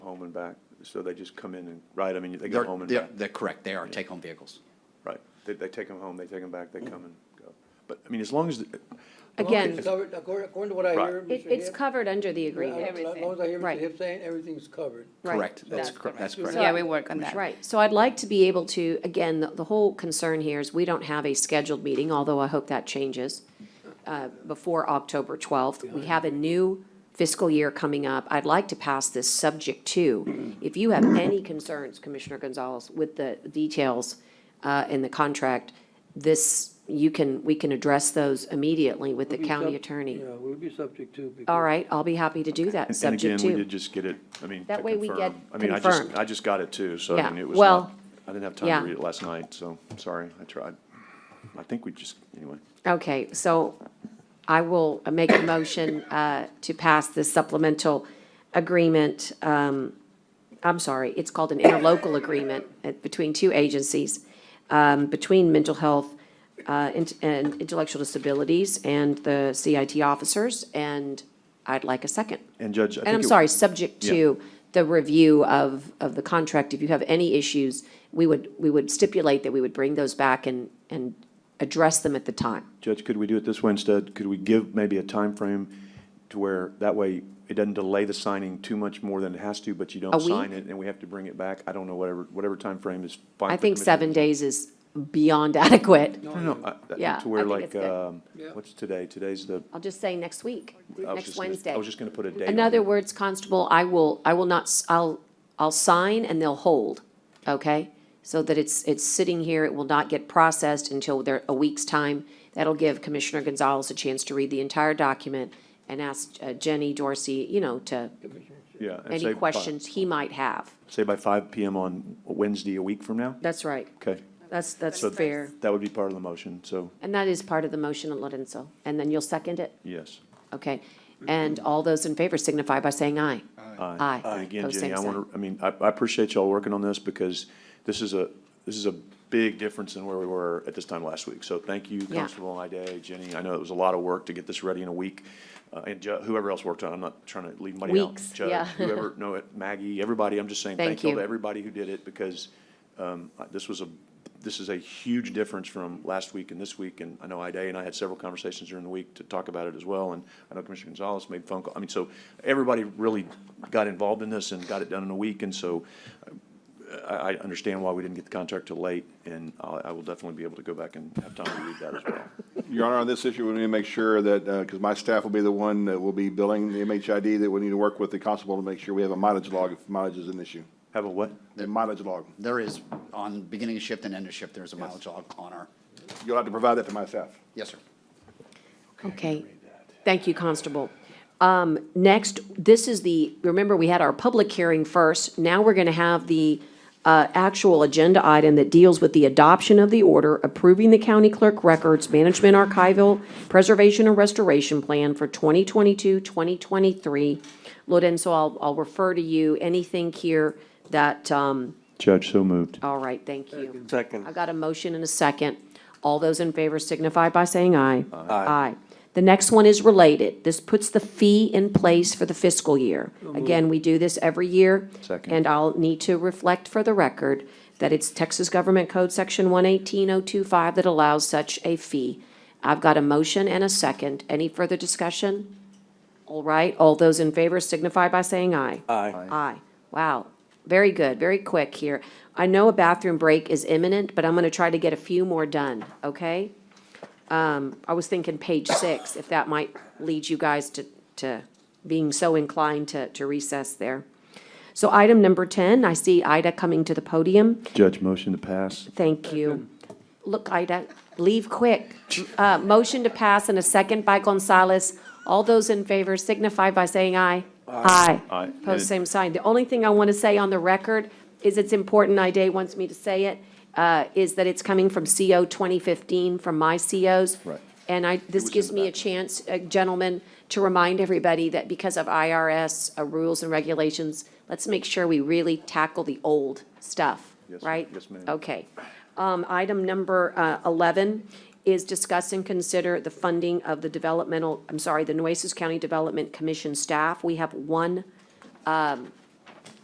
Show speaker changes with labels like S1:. S1: and back, so they just come in and, right, I mean, they go
S2: They're-
S1: home and
S2: they're-
S1: back.
S2: They're correct, they are take-home vehicles.
S1: Right, they, they take them home, they take them back, they come and go. But, I mean, as long as, the-
S3: Again,
S4: It's covered, According according to what I
S1: Right.
S4: hear,
S3: it,
S4: Mr.
S3: it's
S4: Hibb,
S3: covered under the
S4: uh,
S3: agreement.
S4: As long as I hear Mr.
S3: Right.
S4: Hibb saying, everything's covered.
S3: Right.
S2: Correct, that's,
S5: That's
S2: cor- that's
S5: correct.
S2: correct.
S3: So-
S5: Yeah, we work on that.
S3: Right, so I'd like to be able to, again, the, the whole concern here is we don't have a scheduled meeting, although I hope that changes, uh, before October twelfth. We have a new fiscal year coming up. I'd like to pass this subject to, if you have any concerns, Commissioner Gonzalez, with the details, uh, in the contract, this, you can, we can address those immediately with the
S4: We'll be
S3: county
S4: sub-
S3: attorney.
S4: Yeah, we'll be subject to. because-
S3: All right, I'll be happy to do
S1: and-
S3: that,
S1: and
S3: subject
S1: again,
S3: to.
S1: we did just get it, I mean, to
S3: That way we
S1: confirm.
S3: get
S1: I mean, I just,
S3: confirmed.
S1: I just got it too, so I
S3: Yeah,
S1: mean, it was
S3: well,
S1: not, I didn't have time
S3: yeah.
S1: to read it last night, so, sorry, I tried. I think we just, anyway.
S3: Okay, so I will make a motion uh, to pass this supplemental agreement. um, I'm sorry, it's called an interlocal agreement uh, between two agencies, um, between mental health uh, int- and intellectual disabilities and the CIT officers, and I'd like a second.
S1: And Judge, I think.
S3: And I'm
S1: it-
S3: sorry, subject to the review of, of the contract, if you have any issues, we would, we would stipulate that we would bring those back and, and address them at the time.
S1: Judge, could we do it this way instead? Could we give maybe a time frame to where, that way, it doesn't delay the signing too much more than it has to, but you
S3: A
S1: don't sign
S3: week?
S1: it, and we have to bring it back? I don't know, whatever, whatever timeframe is fine.
S3: I
S1: for
S3: think
S1: Commissioner.
S3: seven days is beyond adequate.
S1: No, no, I- I-
S3: Yeah,
S1: to where
S3: I think it's
S1: like,
S3: good.
S1: um,
S4: Yeah.
S1: what's today? Today's the,
S3: I'll just say next week,
S1: I was
S3: next
S1: just gonna-
S3: Wednesday.
S1: I was just gonna put a date on
S3: In other
S1: it.
S3: words, Constable, I will, I will not, s- I'll, I'll sign and they'll hold, okay? So that it's, it's sitting here, it will not get processed until there, a week's time. That'll give Commissioner Gonzalez a chance to read the entire document and ask uh, Jenny Dorsey, you know, to,
S1: yeah. and say by-
S3: any questions he might have.
S1: Say by five PM on Wednesday, a week from now?
S3: That's right,
S1: Okay,
S3: that's, that's
S1: So-
S3: fair.
S1: that would be part of the motion, so,
S3: And that is part of the motion, Lorenzo. And then you'll second it?
S1: yes.
S3: Okay, and all those in favor signify by saying aye. Aye.
S1: And again,
S3: Pose
S1: Jenny,
S3: same
S1: I
S3: sign.
S1: want to, I mean, I, I appreciate y'all working on this because this is a, this is a big difference in where we were at this time last week. So thank you,
S3: Yeah.
S1: Constable Ida, Jenny. I know it was a lot of work to get this ready in a week. Uh, and Ju- whoever else worked on, it. I'm not trying to leave money out.
S3: Weeks,
S1: Judge,
S3: yeah.
S1: Whoever, no, it- Maggie, everybody, I'm just saying
S3: Thank
S1: thank you to
S3: you.
S1: everybody who did it because, um, I- this was a, this is a huge difference from last week and this week. And I know Ida and I had several conversations during the week to talk about it as well. And I know Commissioner Gonzalez made phone call. I mean, so everybody really got involved in this and got it done in a week. And so uh, I, I understand why we didn't get the contract till late. And I, I will definitely be able to go back and have time to read that as well.
S6: Your Honor, on this issue, we need to make sure that, because my staff will be the one that will be billing the MHID, that we need to work with the constable to make sure we have a mileage log if mileage is an issue.
S1: Have a what?
S6: A mileage log.
S2: There is, on beginning of shift and end of shift, there's a mileage log on our,
S6: You'll have to provide that to my staff.
S2: yes, sir.
S3: Okay, thank you, Constable. Um, next, this is the, remember, we had our public hearing first. Now we're gonna have the, uh, actual agenda item that deals with the adoption of the order approving the county clerk records management archival preservation and restoration plan for 2022-2023. Lorenzo, I'll, I'll refer to you. Anything here that, um,
S1: Judge, so moved.
S3: all right, thank you.
S4: Second.
S3: I've got a motion and a second. All those in favor signify by saying aye. Aye. The next one is related. This puts the fee in place for the fiscal year. Again, we do this every year.
S1: Second.
S3: And I'll need to reflect for the record that it's Texas Government Code Section 118025 that allows such a fee. I've got a motion and a second. Any further discussion? All right, all those in favor signify by saying aye. Aye. Aye. Wow, very good, very quick here. I know a bathroom break is imminent, but I'm going to try to get a few more done, okay? Um, I was thinking page six, if that might lead you guys to, to being so inclined to, to recess there. So item number 10, I see Ida coming to the podium.
S1: Judge, motion to pass.
S3: Thank you. Look, Ida, leave quick. Uh, motion to pass and a second by Gonzalez. All those in favor signify by saying aye. Aye.
S1: Aye.
S3: Post same sign. The only thing I want to say on the record is it's important, Ida wants me to say it, uh, is that it's coming from CO 2015, from my COs.
S1: Right.
S3: And I, this
S1: was in
S3: gives
S1: the
S3: me a
S1: back.
S3: chance, uh, gentlemen, to remind everybody that because of IRS uh, rules and regulations, let's make sure we really tackle the old stuff,
S1: Yes, ma'am.
S3: right?
S1: Yes, ma'am.
S3: Okay. Um, Item number uh, 11 is discuss and consider the funding of the developmental, I'm sorry, the Nueces County Development Commission staff. We have one um,